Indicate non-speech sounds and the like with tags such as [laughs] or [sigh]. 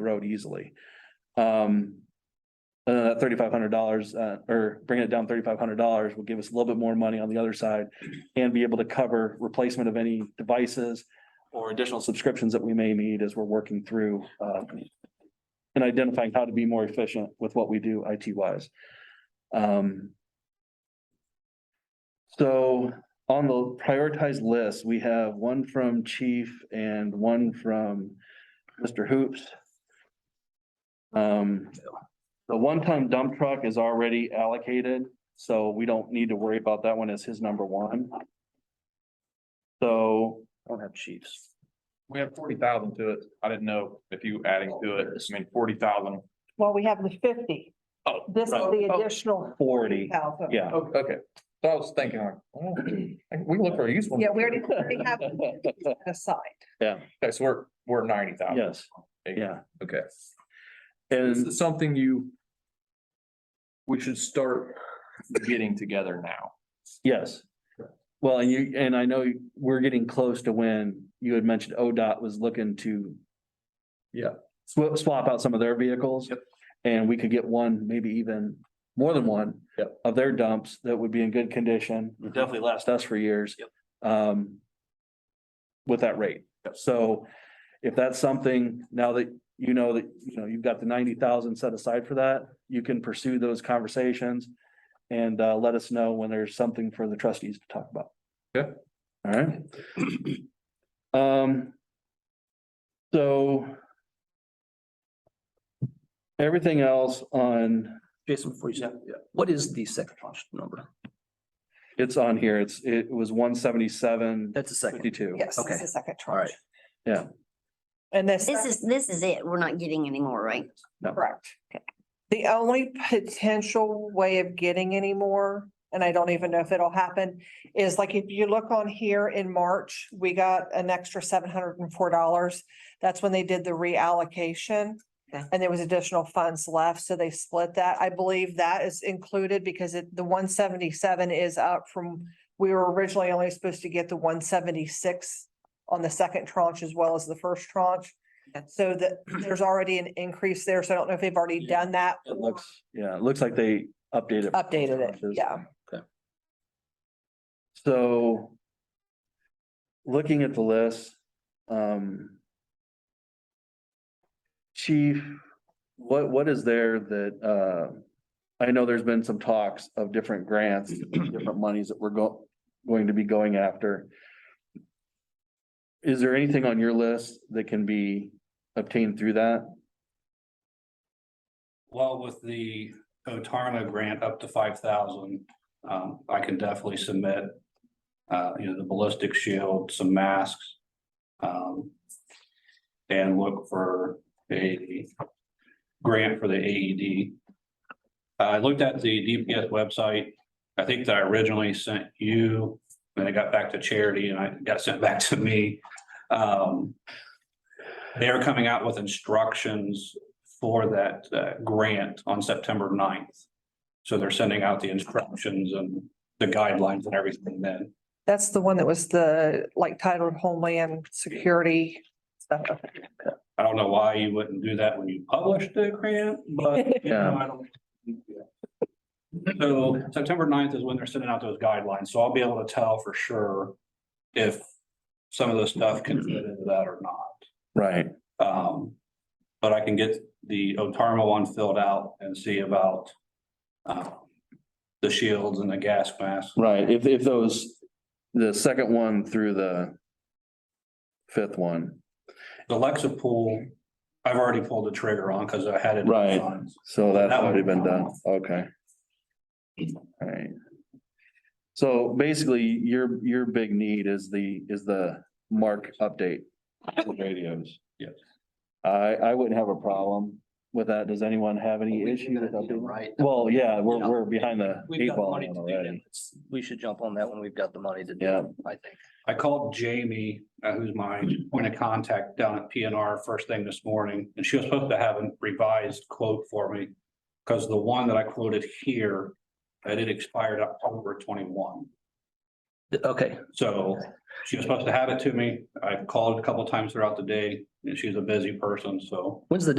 road easily. Um, uh, thirty-five hundred dollars, uh, or bringing it down thirty-five hundred dollars will give us a little bit more money on the other side and be able to cover replacement of any devices or additional subscriptions that we may need as we're working through, uh, and identifying how to be more efficient with what we do IT wise. Um, so on the prioritized list, we have one from chief and one from Mr. Hoops. Um, the one-time dump truck is already allocated, so we don't need to worry about that one as his number one. So. I don't have chiefs. We have forty thousand to it. I didn't know if you adding to it, I mean, forty thousand. Well, we have the fifty. Oh, This is right. the Oh. additional Forty, thousand. yeah. Oh, okay. So I was thinking like, well, we can look for a useful. Yeah, we already, we [laughs] have aside. Okay, so we're, we're ninety thousand. Yes, yeah. Okay. This And is something you. We should start getting together now. yes. Well, and you, and I know we're getting close to when you had mentioned ODOT was looking to. Yeah. Swap, swap out some of their vehicles. Yep. And we could get one, maybe even more than one. Yep. Mm-hmm. Of their dumps that would be in good condition, would definitely last us for years. Um. With that rate. Yep. So if that's something, now that you know that, you know, you've got the ninety thousand set aside for that, you can pursue those conversations. And uh, let us know when there's something for the trustees to talk about. Okay. All right. [clears throat] Um. So. Everything else on, Jason, before you say, what is the second tranche number? it's on here, it's, it was one seventy-seven That's the second. fifty-two. Yes, this Okay. is the second All right. tranche. Yeah. And this, This is, this is it. We're not getting any more, right? correct. The only potential way of getting any more, and I don't even know if it'll happen, is like if you look on here in March, we got an extra seven hundred and four dollars. That's when they did the reallocation. Okay. And there was additional funds left, so they split that. I believe that is included because it, the one seventy-seven is up from, we were originally only supposed to get the one seventy-six on the second tranche as well as the first tranche. Okay. So that there's already an increase there, so I don't know if they've already done that. It looks, yeah, it looks like they updated. Updated it, yeah. So. Looking at the list, um. Chief, what, what is there that, uh, I know there's been some talks of different grants, different monies that we're go, going to be going after. Is there anything on your list that can be obtained through that? Well, with the Otarma grant up to five thousand, um, I can definitely submit. Uh, you know, the ballistic shield, some masks. Um. And look for a grant for the AED. Uh, I looked at the DPS website. I think that I originally sent you, and I got back to charity and I got sent back to me. Um. They are coming out with instructions for that uh, grant on September 9th. So they're sending out the instructions and the guidelines and everything then. That's the one that was the, like titled Homeland Security. stuff. I don't know why you wouldn't do that when you publish the grant, but you know, I don't. So September 9th is when they're sending out those guidelines, so I'll be able to tell for sure if some of the stuff can fit into that or not. Right. Um, but I can get the Otarma one filled out and see about um, the shields and the gas masks. Right, if, if those, the second one through the fifth one, The Lexa pool, I've already pulled the trigger on because I had it. Right. on. so that's That one. already been done, okay. Alright. So basically, your, your big need is the, is the mark update. for Radios. Yes. I, I wouldn't have a problem with that, does anyone have any issue with updating? Right. Well, yeah, we're, Yeah. we're behind the We've eight got the ball money to on do already. that. We should jump on that when we've got the money to do Yeah. it, I think. I called Jamie, uh, who's my point of contact down at PNR first thing this morning, and she was supposed to have a revised quote for me. Because the one that I quoted here, that it expired October twenty-one. Th- Okay, So she was supposed to have it to me. I called a couple times throughout the day and she's a busy person, so when's the